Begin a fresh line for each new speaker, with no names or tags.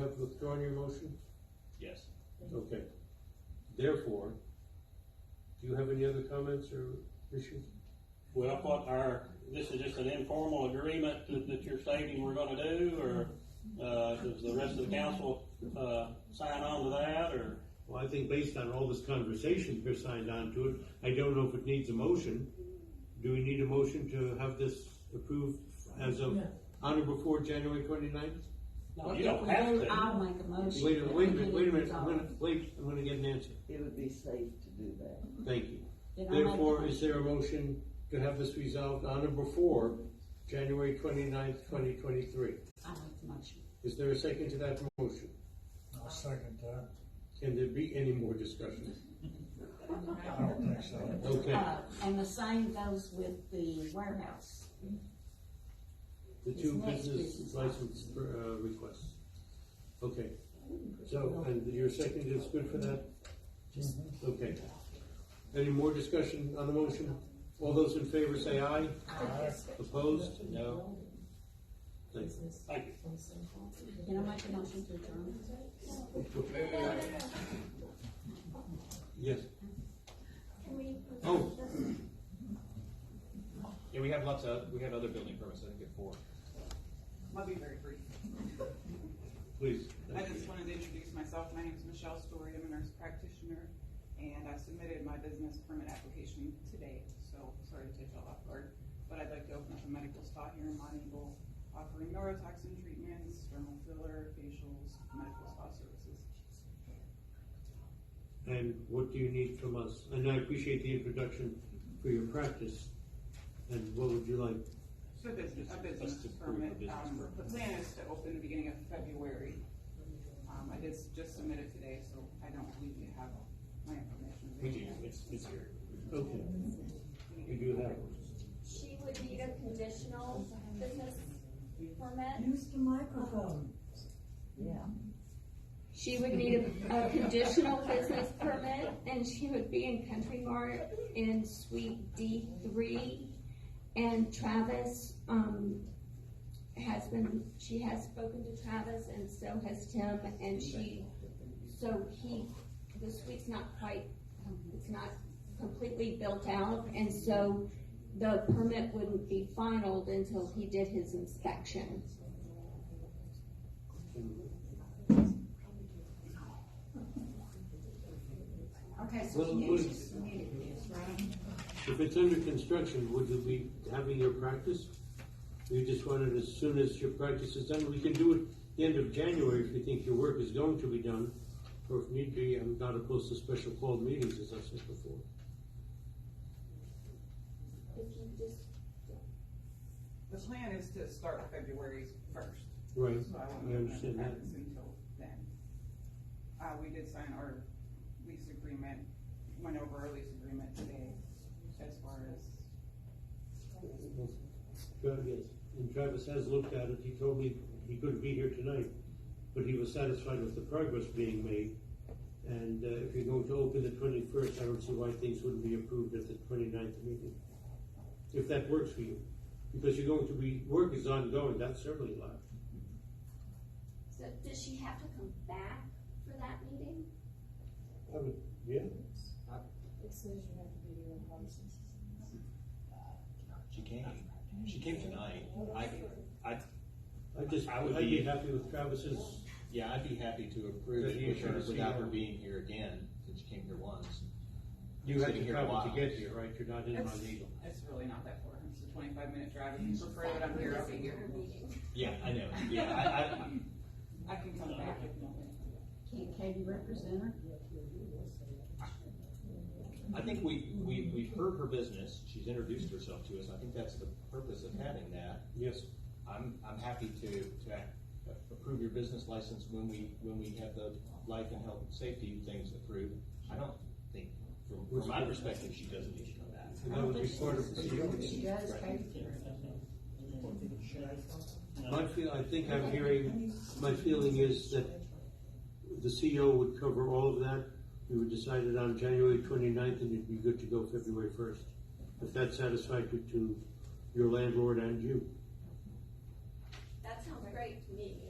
have withdrawn your motion?
Yes.
Okay. Therefore, do you have any other comments or issues?
Well, what our, this is just an informal agreement that, that you're stating we're gonna do, or, uh, does the rest of the council, uh, sign on to that, or?
Well, I think based on all this conversation, you're signed on to it, I don't know if it needs a motion. Do we need a motion to have this approved as of,
No.
on or before January twenty-ninth?
No, you don't have to.
I'll make a motion.
Wait, a- wait a
that we
minute, wait a
do
minute,
it
I'm gonna, wait, I'm gonna get an answer,
It would be safe to do that.
thank you.
Then I'll make
Therefore,
the
is there a motion to have this resolved on or before January twenty-ninth, twenty twenty-three?
I make the motion.
Is there a second to that motion?
I'll second that.
Can there be any more discussion?
I don't think so.
Okay,
Uh, and the same goes with the warehouse.
the two
It's next
business
business.
license uh, requests. Okay, so, and your second is good for that? Okay. Any more discussion on the motion? All those in favor say aye.
Aye.
Opposed? No. Thank you.
Thank you.
Can I make a motion to adjourn?
Yes.
Can we?
Oh,
Yeah, we have lots of, we have other building permits, I think at four.
I'll be very brief.
please.
I
Thank you.
just wanted to introduce myself. My name is Michelle Story. I'm a nurse practitioner, and I submitted my business permit application today, so sorry to take y'all off guard. But I'd like to open up a medical spa here in Mount Eagle, offering neurotoxin treatments, dermal filler, facials, medical spa services.
And what do you need from us? And I appreciate the introduction for your practice. And what would you like?
So business, a
That's
business
to prove a
permit.
business
Um,
permit.
The plan is to open the beginning of February. Um, I did s- just submit it today, so I don't believe you have my information.
We do, it's, it's here.
Okay, you do have one.
She would need a conditional business permit.
Use the microphone.
Yeah.
She would need a, a conditional business permit and she would be in Country Mart in Suite D three. And Travis, um, has been, she has spoken to Travis and so has Tim and she, so he, the suite's not quite, it's not completely built out and so the permit wouldn't be finalized until he did his inspection.
Okay, so
Well,
you
good.
just submitted this, right?
If it's under construction, would you be having your practice? You just want it as soon as your practice is done? We can do it the end of January if you think your work is going to be done. Or if need be, I'm not opposed to special called meetings, as I said before.
If you just
The plan is to start February first,
Right,
so I
I
won't have
understand that.
practice until then. Uh, we did sign our lease agreement, went over our lease agreement today as far as,
Good, yes. And Travis has looked at it. He told me he couldn't be here tonight, but he was satisfied with the progress being made. And uh, if you're going to open the twenty-first, I don't see why things wouldn't be approved at the 29th meeting. If that works for you, because you're going to be, work is ongoing, that's certainly live.
So does she have to come back for that meeting?
I would, yeah.
She came, she came tonight. I, I,
I just,
I would
I'd be
be-
happy with Travis's,
yeah, I'd be happy to approve
Good,
it
you
with
should
her
have seen
without her
her.
being here again, since she came here once.
you had
Sitting
to
here a
travel
while.
to get here, right? You're not in on
It's-
legal.
it's really not that far, it's a twenty-five minute drive, if you prefer that I'm here, I'll be here.
Yeah, I know, yeah, I, I,
I can come back if you want.
Can Katie represent her?
I think we, we, we've heard her business, she's introduced herself to us, I think that's the purpose of having that.
Yes.
I'm, I'm happy to, to approve your business license when we, when we have the life and health and safety things approved. I don't think, from, from my perspective, she doesn't need to come back.
And that would be part of the.
She does, Katie.
My feel, I think I'm hearing, my feeling is that the CEO would cover all of that. We would decide it on January 29th, and it'd be good to go February first. If that's satisfactory to your landlord and you.
That sounds great to me.